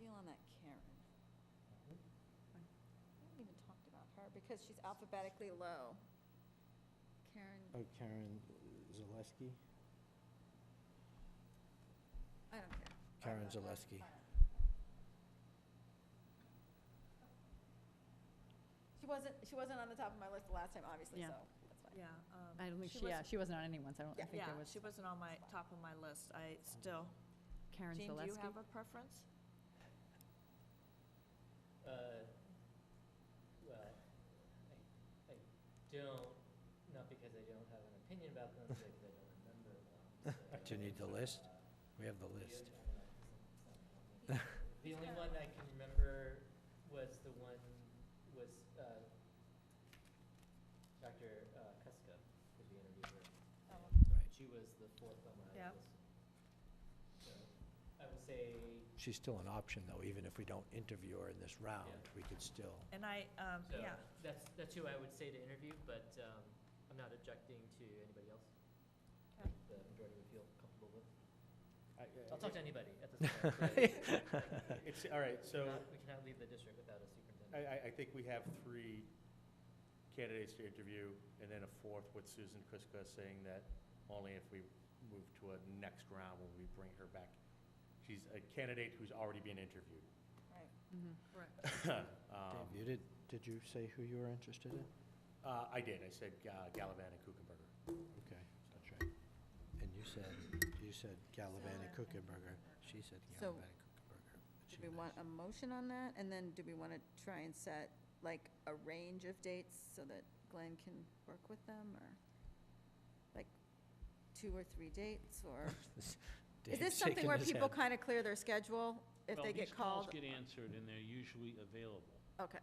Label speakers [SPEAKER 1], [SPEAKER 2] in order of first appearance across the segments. [SPEAKER 1] feel on that Karen? We haven't even talked about her because she's alphabetically low. Karen,
[SPEAKER 2] Oh, Karen Zaleski?
[SPEAKER 1] I don't care.
[SPEAKER 2] Karen Zaleski.
[SPEAKER 1] She wasn't, she wasn't on the top of my list the last time, obviously,
[SPEAKER 3] Yeah.
[SPEAKER 1] so that's fine.
[SPEAKER 4] Yeah, um,
[SPEAKER 3] I don't think
[SPEAKER 4] She
[SPEAKER 3] she, yeah,
[SPEAKER 4] was-
[SPEAKER 3] she wasn't on anyone's. I don't I
[SPEAKER 1] Yeah.
[SPEAKER 3] think
[SPEAKER 4] yeah,
[SPEAKER 3] there was.
[SPEAKER 4] she wasn't on my, top of my list. I still,
[SPEAKER 3] Karen
[SPEAKER 4] Jean, do you
[SPEAKER 3] Zaleski.
[SPEAKER 4] have a preference?
[SPEAKER 5] Uh, Well, I, I don't, not because I don't have an opinion about them, but because I don't remember them. so,
[SPEAKER 2] Do you need the list?
[SPEAKER 5] uh,
[SPEAKER 2] We have the
[SPEAKER 5] the-
[SPEAKER 2] list.
[SPEAKER 5] The only one I can remember was the one, was uh, Dr. uh, Cusko, because we interviewed her.
[SPEAKER 1] Oh,
[SPEAKER 5] and
[SPEAKER 2] Right.
[SPEAKER 5] She was the fourth on my
[SPEAKER 4] Yeah.
[SPEAKER 5] list. So I will say
[SPEAKER 2] She's still an option, though, even if we don't interview her in this round,
[SPEAKER 5] Yeah.
[SPEAKER 2] we could still.
[SPEAKER 4] And I, um,
[SPEAKER 5] So
[SPEAKER 4] yeah,
[SPEAKER 5] that's, that's who I would say to interview, but um, I'm not objecting to anybody else.
[SPEAKER 4] Okay.
[SPEAKER 5] The majority would feel comfortable with. I'll talk to anybody at this point. but
[SPEAKER 6] Uh, It's, all right, so
[SPEAKER 5] not- We cannot leave the district without a
[SPEAKER 6] I,
[SPEAKER 5] superintendent.
[SPEAKER 6] I, I think we have three candidates to interview, and then a fourth with Susan Prisco saying that only if we move to a next round will we bring her back. She's a candidate who's already been interviewed.
[SPEAKER 1] Right.
[SPEAKER 3] Mhm.
[SPEAKER 4] correct.
[SPEAKER 6] Um,
[SPEAKER 2] Dave, you did, did you say who you were interested in?
[SPEAKER 6] Uh, I did, I said uh, Gallivan and Kuchenberger.
[SPEAKER 2] Okay, that's right. And you said, you said Gallivan and Kuchenberger. She said
[SPEAKER 1] uh, So,
[SPEAKER 2] Gallivan and Kuchenberger. but she
[SPEAKER 1] Do we
[SPEAKER 2] knows.
[SPEAKER 1] want a motion on that? And then do we want to try and set like a range of dates so that Glenn can work with them or like two or three dates or? Is
[SPEAKER 2] Dave's
[SPEAKER 1] this something
[SPEAKER 2] shaking
[SPEAKER 1] where
[SPEAKER 2] his
[SPEAKER 1] people
[SPEAKER 2] head.
[SPEAKER 1] kind of clear their schedule if
[SPEAKER 7] Well,
[SPEAKER 1] they get called?
[SPEAKER 7] These calls get answered, and they're usually available.
[SPEAKER 1] Okay,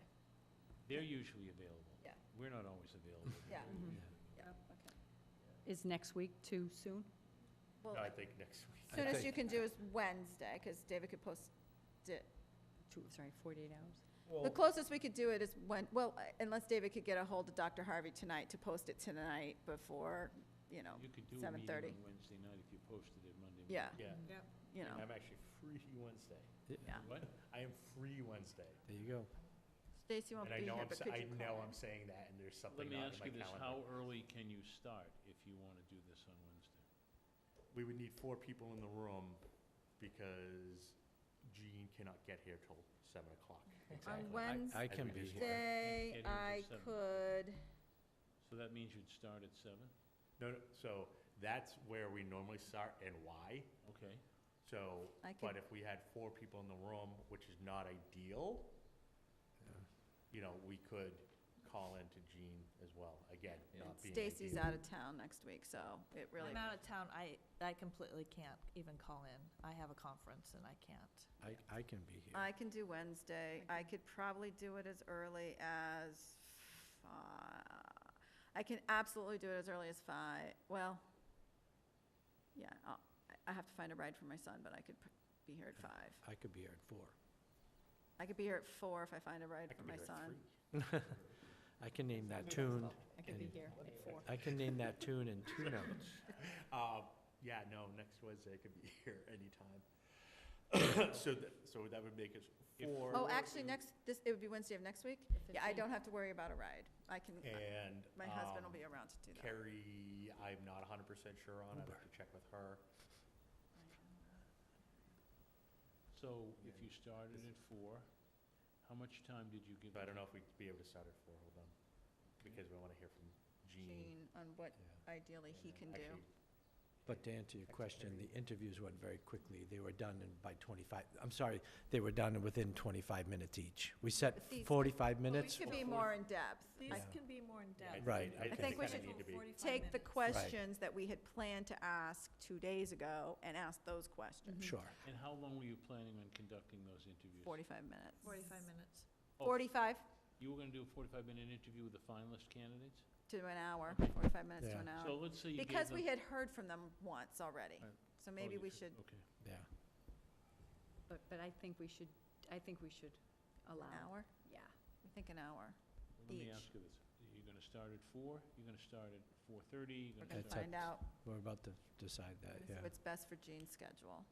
[SPEAKER 7] They're usually available.
[SPEAKER 1] Yeah.
[SPEAKER 7] We're not always available.
[SPEAKER 1] yeah,
[SPEAKER 2] Mm-hmm.
[SPEAKER 3] Mhm.
[SPEAKER 1] yeah, okay.
[SPEAKER 3] Is next week too soon?
[SPEAKER 6] No, I
[SPEAKER 1] Well,
[SPEAKER 6] think next week.
[SPEAKER 2] I
[SPEAKER 1] soonest you can
[SPEAKER 2] think-
[SPEAKER 1] do is Wednesday because David could post it.
[SPEAKER 3] Two, sorry, 48 hours?
[SPEAKER 1] The closest we could do it is when, well, unless David could get a hold of Dr. Harvey tonight to post it tonight before, you know,
[SPEAKER 7] You could do a meeting
[SPEAKER 1] 7:30.
[SPEAKER 7] on Wednesday night if you posted it Monday. morning.
[SPEAKER 1] Yeah,
[SPEAKER 6] Yeah,
[SPEAKER 3] Mm-hmm.
[SPEAKER 4] Yep.
[SPEAKER 1] you know.
[SPEAKER 6] I'm actually free Wednesday.
[SPEAKER 1] Yeah.
[SPEAKER 7] What?
[SPEAKER 6] I am free Wednesday.
[SPEAKER 2] There you go.
[SPEAKER 1] Stacy won't
[SPEAKER 6] And
[SPEAKER 1] be
[SPEAKER 6] I
[SPEAKER 1] here,
[SPEAKER 6] know I'm,
[SPEAKER 1] but
[SPEAKER 6] sa-
[SPEAKER 1] could
[SPEAKER 6] I
[SPEAKER 1] you call
[SPEAKER 6] know
[SPEAKER 1] in?
[SPEAKER 6] I'm saying that, and there's
[SPEAKER 7] Let
[SPEAKER 6] something
[SPEAKER 7] me
[SPEAKER 6] not in my
[SPEAKER 7] ask you
[SPEAKER 6] calendar.
[SPEAKER 7] this, how early can you start if you want to do this on Wednesday?
[SPEAKER 6] We would need four people in the room because Jean cannot get here till seven o'clock.
[SPEAKER 1] On
[SPEAKER 2] I- I can
[SPEAKER 6] As we
[SPEAKER 2] be
[SPEAKER 6] just
[SPEAKER 2] here.
[SPEAKER 1] Wednesday,
[SPEAKER 7] Getting to
[SPEAKER 1] I
[SPEAKER 7] seven.
[SPEAKER 1] could,
[SPEAKER 7] So that means you'd start at seven?
[SPEAKER 6] No, no, so that's where we normally start and why.
[SPEAKER 7] Okay.
[SPEAKER 6] So,
[SPEAKER 1] I
[SPEAKER 6] but
[SPEAKER 1] could-
[SPEAKER 6] if we had four people in the room, which is not ideal, you know, we could call in to Jean as well, again, not being ideal.
[SPEAKER 1] Stacy's out of town next week, so it really,
[SPEAKER 4] I'm out of town. I, I completely can't even call in. I have a conference and I can't.
[SPEAKER 2] I, I can be here.
[SPEAKER 1] I can do Wednesday. I could probably do it as early as, fi- I can absolutely do it as early as five, well, yeah, I'll, I- I have to find a ride for my son, but I could pr- be here at five.
[SPEAKER 2] I could be here at four.
[SPEAKER 1] I could be here at four if I find a ride
[SPEAKER 6] I
[SPEAKER 1] for
[SPEAKER 6] could be
[SPEAKER 1] my
[SPEAKER 6] here
[SPEAKER 1] son.
[SPEAKER 6] at three.
[SPEAKER 2] I can name that tune.
[SPEAKER 3] I could
[SPEAKER 2] in-
[SPEAKER 3] be here at four.
[SPEAKER 2] I can name that tune in two notes.
[SPEAKER 6] Uh, yeah, no, next Wednesday I could be here anytime. So that, so that would make us
[SPEAKER 7] If-
[SPEAKER 6] four.
[SPEAKER 1] Oh, actually, next, this, it would be Wednesday of next week? Yeah, I don't have to worry about a ride. I can,
[SPEAKER 6] And.
[SPEAKER 1] my husband will be
[SPEAKER 6] um,
[SPEAKER 1] around to do that.
[SPEAKER 6] Carrie, I'm not hundred percent sure on, I'd have to check with her.
[SPEAKER 7] So if you started at four, how much time did you give?
[SPEAKER 6] But I don't know if we'd be able to start at four, hold on, because we wanna hear from Jean.
[SPEAKER 1] Gene on what ideally he can do.
[SPEAKER 6] Actually,
[SPEAKER 2] But to answer your question, the interviews went very quickly. They were done in by 25, I'm sorry, they were done within 25 minutes each. We set
[SPEAKER 1] But these-
[SPEAKER 2] 45
[SPEAKER 1] We
[SPEAKER 2] minutes.
[SPEAKER 1] should be more in depth.
[SPEAKER 4] These
[SPEAKER 2] Yeah.
[SPEAKER 4] can be more
[SPEAKER 6] yeah,
[SPEAKER 4] in-depth.
[SPEAKER 6] I
[SPEAKER 2] Right, I
[SPEAKER 6] I
[SPEAKER 1] think
[SPEAKER 6] think
[SPEAKER 1] we
[SPEAKER 6] we kinda
[SPEAKER 1] should
[SPEAKER 6] need to be,
[SPEAKER 1] Take the questions that we had planned to ask two days ago and ask those questions.
[SPEAKER 2] Sure.
[SPEAKER 7] And how long were you planning on conducting those interviews?
[SPEAKER 1] Forty-five minutes.
[SPEAKER 4] Forty-five minutes.
[SPEAKER 7] Oh,
[SPEAKER 1] Forty-five
[SPEAKER 7] You were going to do a forty-five minute interview with the finalist candidates?
[SPEAKER 1] to an hour, forty-five minutes to
[SPEAKER 2] Yeah.
[SPEAKER 1] an
[SPEAKER 7] So
[SPEAKER 1] hour.
[SPEAKER 7] let's say you gave them.
[SPEAKER 1] Because we had heard from them once already,
[SPEAKER 7] Right.
[SPEAKER 1] so
[SPEAKER 7] Oh,
[SPEAKER 1] maybe
[SPEAKER 7] you
[SPEAKER 1] we
[SPEAKER 7] could-
[SPEAKER 1] should,
[SPEAKER 7] Okay.
[SPEAKER 2] Yeah.
[SPEAKER 3] But, but I think we should, I think we should
[SPEAKER 1] an
[SPEAKER 3] allow.
[SPEAKER 1] hour?
[SPEAKER 3] Yeah.
[SPEAKER 1] I think an hour.
[SPEAKER 7] Let me
[SPEAKER 1] each.
[SPEAKER 7] ask you this. You're gonna start at four, you're gonna start at four thirty, you're
[SPEAKER 1] We're
[SPEAKER 7] gonna
[SPEAKER 1] gonna
[SPEAKER 2] That's up
[SPEAKER 7] start.
[SPEAKER 1] find out
[SPEAKER 2] We're about to decide that,
[SPEAKER 1] Let's see
[SPEAKER 2] uh, yeah.
[SPEAKER 1] what's best for Gene's schedule.